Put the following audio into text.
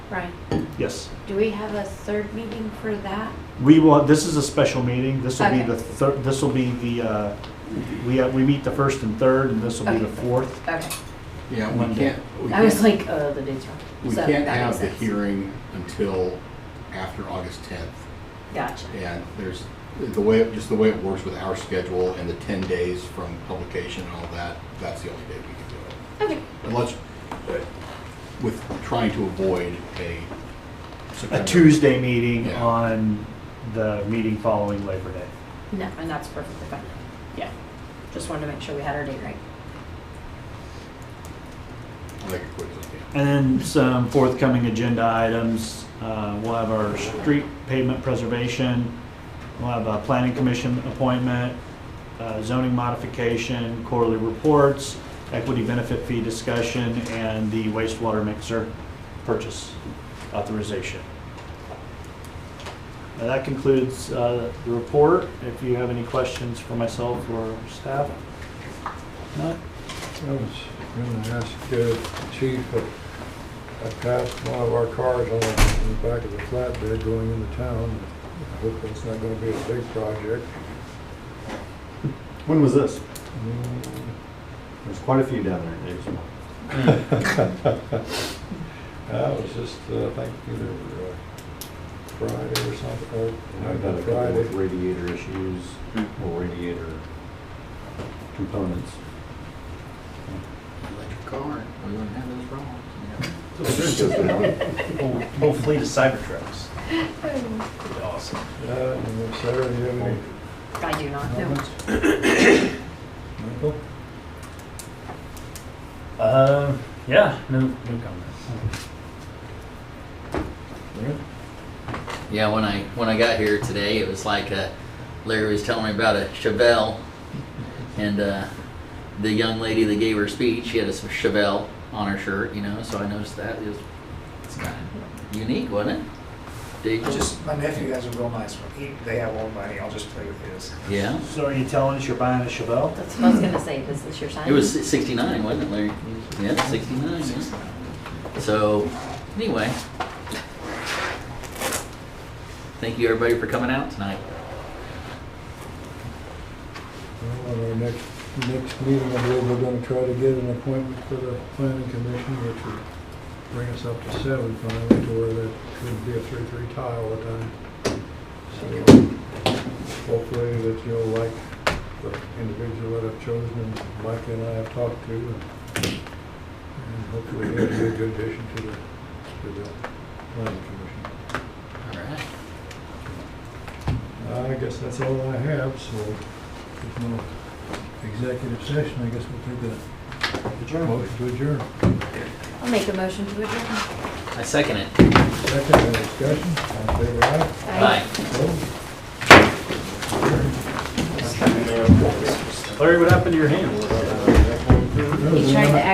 Right. Yes. Do we have a third meeting for that? We will, this is a special meeting. This will be Okay. the third, this will be the, uh, we, uh, we meet the first and third, and this will be the Okay. fourth. Okay. Yeah, we Monday. can't, we I was can't, like, uh, the date's wrong. we So can't that have makes the sense. hearing until after August tenth. Gotcha. And there's, the way, just the way it works with our schedule and the ten days from publication and all that, that's the only day we can do it. Okay. Unless, uh, with trying to avoid a. A September- Tuesday meeting Yeah. on the meeting following Labor Day. No, and that's perfectly fine. Yeah. Just wanted to make sure we had our date right. I'll Make it quick, as I can. And then some forthcoming agenda items. Uh, We'll have our street pavement preservation. We'll have a planning commission appointment, uh, zoning modification, quarterly reports, equity benefit fee discussion, and the wastewater mixer purchase authorization. Now, That concludes uh, the report. If you have any questions for myself or staff? None? I was going to ask uh, Chief, uh, I passed one of our cars on the- in the back of the flatbed going into town. I hope it's not going to be a big project. When was this? Mm, There's quite a few down there. There's one. I was just, uh, I think either uh, Friday or something, or I've got a couple Friday. with radiator issues or radiator components. Electric car, we wouldn't have those problems. Whole whole fleet of Cybertrucks. Pretty Awesome. Uh, and Sarah, do you have any I do not know. comments? Michael? Um, yeah, no, no comments. Yeah, when I when I got here today, it was like uh, Larry was telling me about a Chevelle, and uh, the young lady that gave her speech, she had a Chevelle on her shirt, you know. So I noticed that it was it's kind of unique, wasn't it? Did you Just, my nephew has a real nice one. He, they have old money. I'll just play with his. yeah. So are you telling us you're buying a Chevelle? That's what I was gonna say. This is your sign? It was sixty nine, wasn't it, Larry? Yeah, sixty nine. So anyway, thank you everybody for coming out tonight. Well, On our next, next meeting, I believe we're gonna try to get an appointment for the planning commission, which will bring us up to seven finally, to where that could be a three-three tie all the time. So hopefully that you'll like the individual that I've chosen, and Mike and I have talked to, and and hopefully he'll be a good addition to the, to the planning commission. All right. I guess that's all I have, so if no executive session, I guess we'll take a motion to adjourn. I'll make a motion to adjourn. I second it. Second, any discussion, all in favor, aye? Bye. Opposed? Larry, what happened to your hand? He tried to